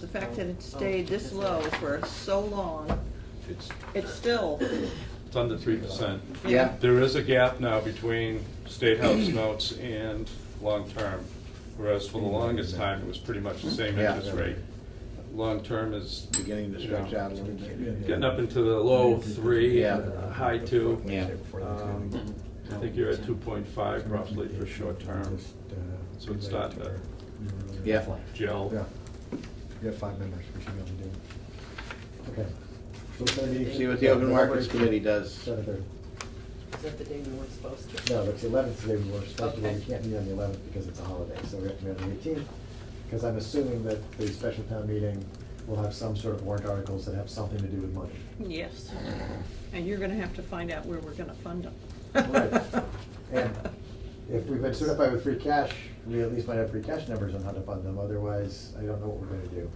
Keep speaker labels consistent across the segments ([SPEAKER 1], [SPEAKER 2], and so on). [SPEAKER 1] The fact that it stayed this low for so long,
[SPEAKER 2] It's,
[SPEAKER 1] it's still,
[SPEAKER 2] it's under three percent.
[SPEAKER 3] Yeah.
[SPEAKER 2] There is a gap now between state house notes and long-term, whereas for the longest time, it was pretty much the same
[SPEAKER 3] Mm-hmm. Yeah.
[SPEAKER 2] interest rate. Long-term is
[SPEAKER 3] Beginning to stretch out a little bit.
[SPEAKER 2] getting up into the low three,
[SPEAKER 3] Yeah.
[SPEAKER 2] uh, high two.
[SPEAKER 3] Yeah.
[SPEAKER 2] Um, I think you're at two point five roughly for short-term, so it's not that
[SPEAKER 3] Yeah.
[SPEAKER 4] Yeah.
[SPEAKER 2] gel.
[SPEAKER 4] We have five members, we should be able to do it. Okay. So it's gonna be-
[SPEAKER 3] See what the open markets committee does.
[SPEAKER 4] Seven thirty.
[SPEAKER 5] Is that the day we weren't supposed to?
[SPEAKER 4] No, it's the eleventh today, we were supposed to, but we
[SPEAKER 5] Okay.
[SPEAKER 4] can't meet on the eleventh because it's a holiday, so we have to meet on the eighteenth. Because I'm assuming that the special town meeting will have some sort of warrant articles that have something to do with money.
[SPEAKER 1] yes. And you're gonna have to find out where we're gonna fund them.
[SPEAKER 4] Right. And if we've been certified with free cash, we at least might have free cash numbers on how to fund them, otherwise, I don't know what we're gonna do.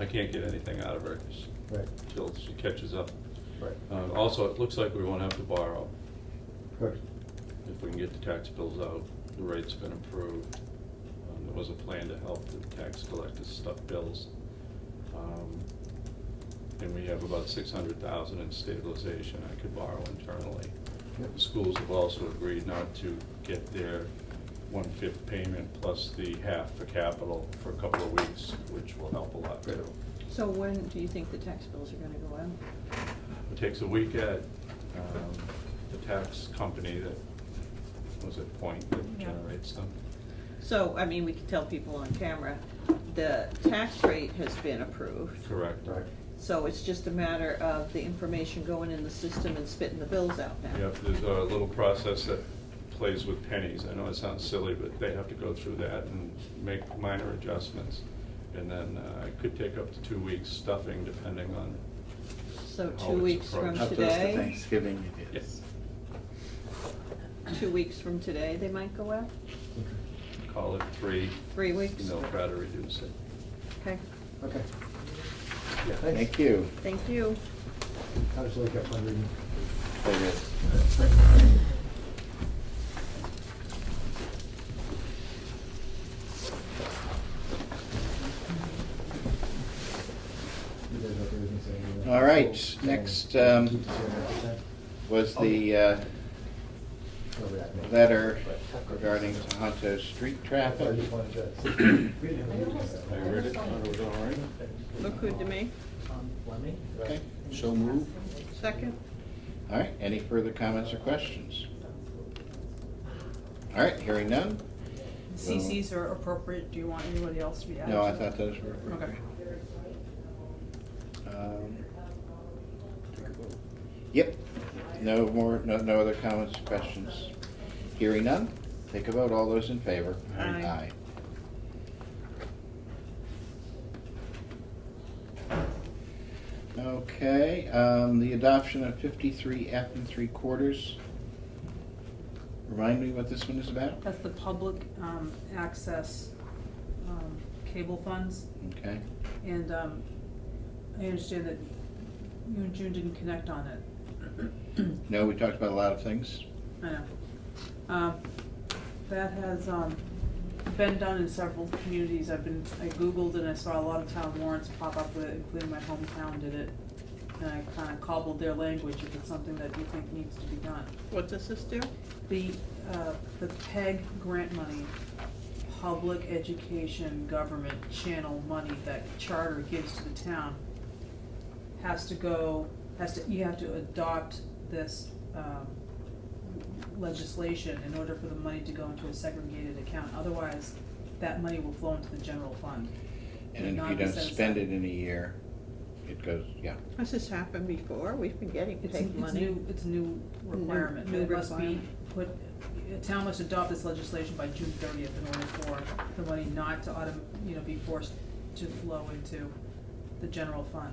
[SPEAKER 2] I can't get anything out of her just
[SPEAKER 4] Right,
[SPEAKER 2] until she catches up.
[SPEAKER 4] right,
[SPEAKER 2] Uh, Also, it looks like we won't have to borrow.
[SPEAKER 4] good.
[SPEAKER 2] If we can get the tax bills out, the rate's been improved. Um, There was a plan to help the tax collectors stuff bills. Um, And we have about six hundred thousand in stabilization I could borrow internally.
[SPEAKER 4] Yep.
[SPEAKER 2] The schools have also agreed not to get their one-fifth payment plus the half for capital for a couple of weeks, which will help a lot too.
[SPEAKER 1] So when do you think the tax bills are gonna go out?
[SPEAKER 2] It takes a week at um, the tax company that, was it Point that
[SPEAKER 5] Yeah.
[SPEAKER 2] generates them?
[SPEAKER 1] So, I mean, we can tell people on camera, the tax rate has been approved.
[SPEAKER 2] Correct.
[SPEAKER 4] Right,
[SPEAKER 1] So it's just a matter of the information going in the system and spitting the bills out now.
[SPEAKER 2] Yep, there's a little process that plays with pennies. I know it sounds silly, but they have to go through that and make minor adjustments. And then uh, it could take up to two weeks stuffing depending on,
[SPEAKER 1] So
[SPEAKER 2] How
[SPEAKER 1] two
[SPEAKER 2] it's
[SPEAKER 1] weeks from
[SPEAKER 2] approached.
[SPEAKER 3] How close to
[SPEAKER 1] today,
[SPEAKER 3] Thanksgiving it is.
[SPEAKER 2] yes,
[SPEAKER 1] two weeks from today, they might go out,
[SPEAKER 2] call it three,
[SPEAKER 1] three weeks?
[SPEAKER 2] and they'll try to reduce it.
[SPEAKER 1] Okay,
[SPEAKER 4] okay.
[SPEAKER 2] Yeah.
[SPEAKER 4] Thanks.
[SPEAKER 3] Thank you.
[SPEAKER 1] thank you.
[SPEAKER 4] I'll just look up my reading.
[SPEAKER 3] There it is.
[SPEAKER 4] You guys okay with me saying that?
[SPEAKER 3] All right, next, um,
[SPEAKER 4] Keep the same amount,
[SPEAKER 3] Was the uh,
[SPEAKER 4] okay? Over that minute.
[SPEAKER 3] letter regarding Tohoto street
[SPEAKER 4] I thought
[SPEAKER 3] traffic?
[SPEAKER 4] you wanted to- we didn't have a meeting.
[SPEAKER 3] I read it, thought it was all right.
[SPEAKER 1] Look good to me.
[SPEAKER 5] Tom Fleming?
[SPEAKER 3] Okay, so moved.
[SPEAKER 1] Second?
[SPEAKER 3] All right, any further comments or questions? All right, hearing none?
[SPEAKER 6] CCs are appropriate, do you want anybody else to be added?
[SPEAKER 3] No, I
[SPEAKER 6] to that?
[SPEAKER 3] thought those were.
[SPEAKER 6] Okay.
[SPEAKER 3] Um, Yep, no more, no, no other comments, questions. Hearing none, take a vote, all those in favor?
[SPEAKER 1] Aye. Aye.
[SPEAKER 3] Okay, um, the adoption of fifty-three F and three quarters. Remind me what this one is about?
[SPEAKER 6] That's the public um, access um, cable funds,
[SPEAKER 3] Okay,
[SPEAKER 6] and um, I understand that you and June didn't connect on it.
[SPEAKER 3] no, we talked about a lot of things.
[SPEAKER 6] I know. Um, That has um, been done in several communities. I've been, I Googled and I saw a lot of town warrants pop up with it, including my hometown did it. And I kind of cobbled their language if it's something that you think needs to be done.
[SPEAKER 1] What does this do?
[SPEAKER 6] The, uh, the PEG grant money, public education government channel money that charter gives to the town has to go, has to, you have to adopt this, um, legislation in order for the money to go into a segregated account. Otherwise, that money will flow into the general fund.
[SPEAKER 3] And if
[SPEAKER 6] Not
[SPEAKER 3] you
[SPEAKER 6] be
[SPEAKER 3] don't
[SPEAKER 6] set
[SPEAKER 3] spend
[SPEAKER 6] aside.
[SPEAKER 3] it in a year, it goes, yeah.
[SPEAKER 1] Has this happened before? We've been getting
[SPEAKER 6] It's,
[SPEAKER 1] paid
[SPEAKER 6] it's
[SPEAKER 1] money.
[SPEAKER 6] new, it's new requirement,
[SPEAKER 1] new
[SPEAKER 6] it must be
[SPEAKER 1] requirement.
[SPEAKER 6] put, a town must adopt this legislation by June thirtieth in order for the money not to autom, you know, be forced to flow into the general fund.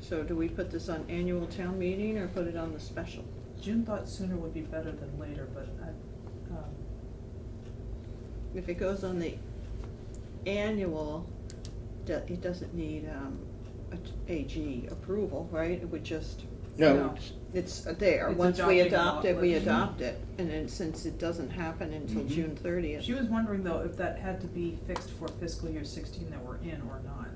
[SPEAKER 1] So do we put this on annual town meeting or put it on the special?
[SPEAKER 6] June thought sooner would be better than later, but I, um,
[SPEAKER 1] If it goes on the annual, do- it doesn't need um, a t- AG approval, right? It would just,
[SPEAKER 6] No.
[SPEAKER 3] No, it's-
[SPEAKER 1] it's there.
[SPEAKER 6] It's
[SPEAKER 1] Once we
[SPEAKER 6] adopting the
[SPEAKER 1] adopt it, we
[SPEAKER 6] law.
[SPEAKER 1] adopt it. And then since it doesn't happen until
[SPEAKER 3] Mhm.
[SPEAKER 1] June
[SPEAKER 6] Mm-hmm. she
[SPEAKER 1] thirtieth,
[SPEAKER 6] was wondering though if that had to be fixed for fiscal year sixteen that we're in or not.